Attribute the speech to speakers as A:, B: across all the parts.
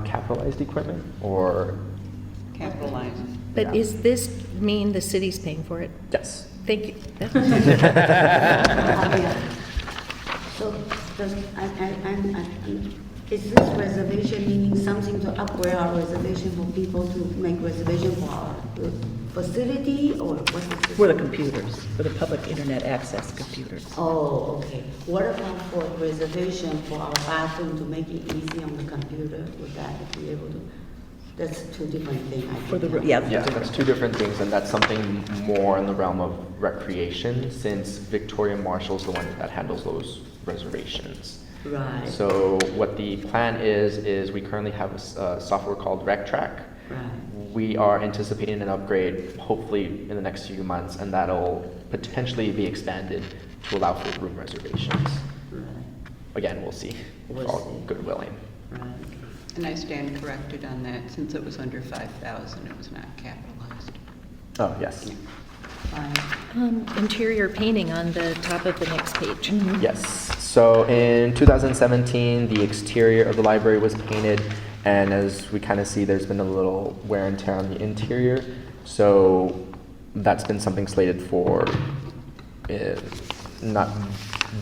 A: non-capitalized equipment, or?
B: capitalized.
C: But
A: Yeah.
C: is this mean the city's paying for it?
A: Yes.
C: Thank you.
D: So, does, I, I, I'm, I'm- is this reservation meaning something to upgrade our reservation for people to make reservation for our uh, facility, or what's this?
E: For the computers, for the public internet access computers.
D: Oh, okay. What about for reservation for our bathroom to make it easy on the computer? Would that be able to? That's two different things. I
E: For the,
D: think.
E: yeah.
A: Yeah, that's two different things, and that's something more in the realm of recreation, since Victoria Marshall's the one that handles those reservations.
D: Right.
A: So what the plan is, is we currently have a s- a software called RecTrack.
D: Right.
A: We are anticipating an upgrade hopefully in the next few months, and that'll potentially be expanded to allow for room reservations.
D: Right,
A: Again, we'll see. if
D: We'll
A: all
D: see.
A: Good willing.
D: right.
B: And I stand corrected on that, since it was under 5,000, it was not capitalized.
A: Oh, yes.
D: Fine.
C: Um, Interior painting on the top of the next page.
A: Yes. So in 2017, the exterior of the library was painted, and as we kind of see, there's been a little wear and tear on the interior. So that's been something slated for uh, not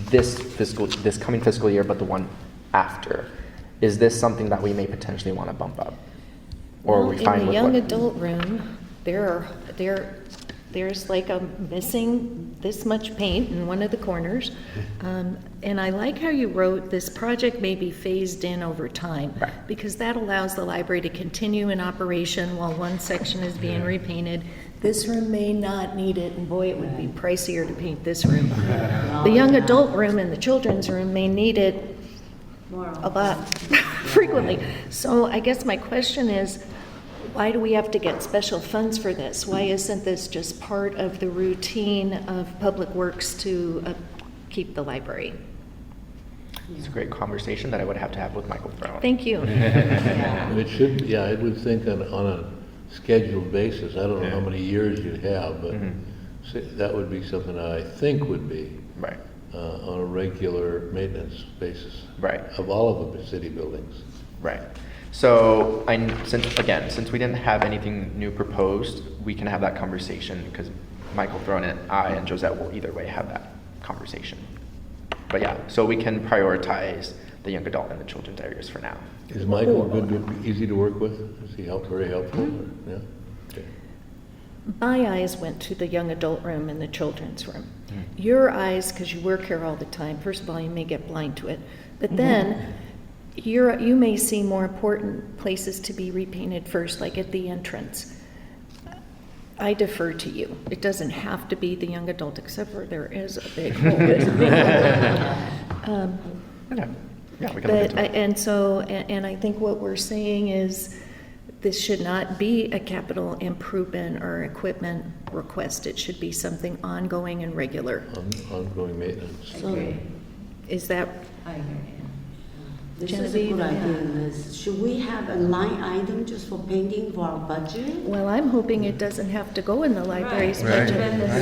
A: this fiscal, this coming fiscal year, but the one after. Is this something that we may potentially want to bump up, or are
C: Well,
A: we fine
C: In the
A: with
C: young
A: what-
C: adult room, there are, there, there's like a missing this much paint in one of the corners.
A: Mm-hmm.
C: Um, And I like how you wrote, this project may be phased in over time.
A: Right.
C: Because that allows the library to continue in operation while one section is being
A: Mm-hmm.
C: repainted. This room may not need it, and boy, it would be pricier to paint this room. The young adult room and the children's room may need it
D: More on-
C: a lot frequently. So I guess my question is, why do we have to get special funds for this? Why isn't this just part of the routine of Public Works to uh, keep the library?
A: It's a great conversation that I would have to have with Michael Brown.
C: Thank you.
D: Yeah.
F: It should, yeah, I would think on, on a scheduled basis, I don't know how many years you'd have, but
A: Mm-hmm.
F: say- that would be something that I think would be
A: Right.
F: uh, on a regular maintenance basis.
A: Right.
F: Of all of the city buildings.
A: Right. So I, since, again, since we didn't have anything new proposed, we can have that conversation because Michael Throne and I and Josette will either way have that conversation. But yeah, so we can prioritize the young adult and the children's areas for now.
F: Is Michael good, to- easy to work with? Is he help, very helpful, or-
D: Mm-hmm.
F: yeah? Okay.
C: My eyes went to the young adult room and the children's room. Your eyes, because you work here all the time, first of all, you may get blind to it, but then you're, you may see more important places to be repainted first, like at the entrance. I defer to you. It doesn't have to be the young adult, except for there is a big hole. Um,
A: Yeah, yeah, we can look
C: but,
A: into
C: I-
A: it.
C: and so, and and I think what we're saying is, this should not be a capital improvement or equipment request. It should be something ongoing and regular.
F: On, ongoing maintenance.
D: So,
C: Is that,
D: I hear you. This is a
C: Genevieve,
D: good
C: yeah.
D: idea, Liz. Should we have a line item just for painting for our budget?
C: well, I'm hoping it doesn't have to go in the library's budget.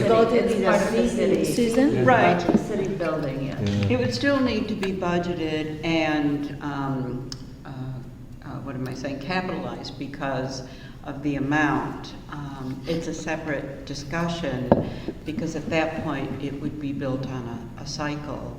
D: Go to the CCD.
C: Susan?
B: Right.
D: City building, yeah.
B: It would still need to be budgeted and, um, uh, uh, what am I saying, capitalized because of the amount. Um, It's a separate discussion, because at that point, it would be built on a- a cycle.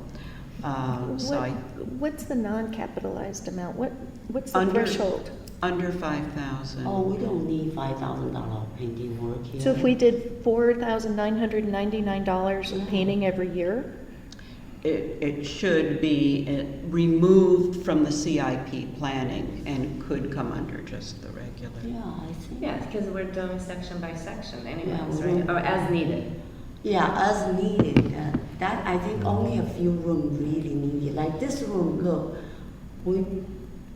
B: Um, So I,
C: What- What's the non-capitalized amount? What, what's the
B: Under-
C: threshold?
B: under 5,000.
D: Oh, we don't need five thousand dollar painting work here.
C: So if we did four thousand nine hundred and ninety-nine dollars in painting every year?
B: It, it should be uh, removed from the CIP planning and could come under just the regular.
D: Yeah, I see.
G: Yeah, because we're doing section by section anyways,
D: Yeah, we
G: right?
D: will.
G: Or as needed.
D: Yeah, as needed. Uh, That, I think only a few rooms really need it. Like this room, look, we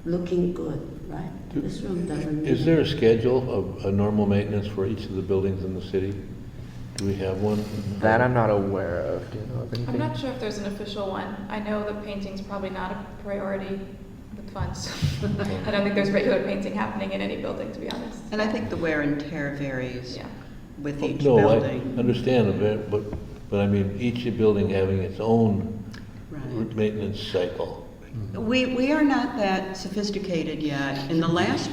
D: looking good, right? This room doesn't.
F: Is
D: need-
F: there a schedule of, a normal maintenance for each of the buildings in the city? Do we have one?
A: That I'm not aware of. Do you know of anything?
H: I'm not sure if there's an official one. I know the painting's probably not a priority with funds. I don't think there's regular painting happening in any building, to be honest.
B: And I think the wear and tear varies
H: Yeah.
B: with each
F: Oh, No, I
B: building.
F: understand, a bit, but, but I mean, each building having its own
B: Right.
F: maintenance cycle.
B: We, we are not that sophisticated yet. In the last